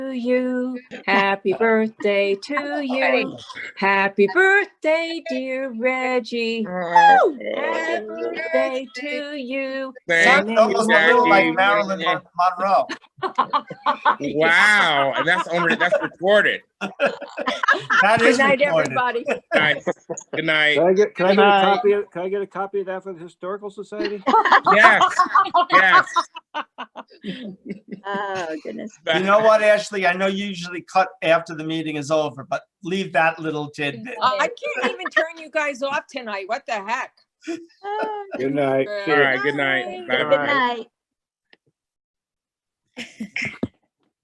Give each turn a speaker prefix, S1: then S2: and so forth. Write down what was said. S1: you. Happy birthday to you. Happy birthday, dear Reggie. Woo! Happy birthday to you.
S2: Thank
S1: Thank
S2: you,
S1: you,
S3: Almost a little
S2: Jackie.
S3: like Marilyn Mon- Monroe.
S2: Wow, and that's on, that's recorded.
S3: That
S1: Good
S3: is
S1: night,
S3: recorded.
S1: everybody.
S2: Nice. Good night.
S4: Can I get, can I get a
S5: Good night.
S4: copy, of- can I get a copy of that for the Historical Society?
S2: Yes, yes.
S6: Oh, goodness.
S3: You know what, Ashley? I know you usually cut after the meeting is over, but leave that little tidbit.
S1: I can't even turn you guys off tonight. What the heck?
S6: Oh,
S4: Good night.
S2: All right, good night.
S1: Bye.
S6: Good
S2: Bye-bye.
S6: night.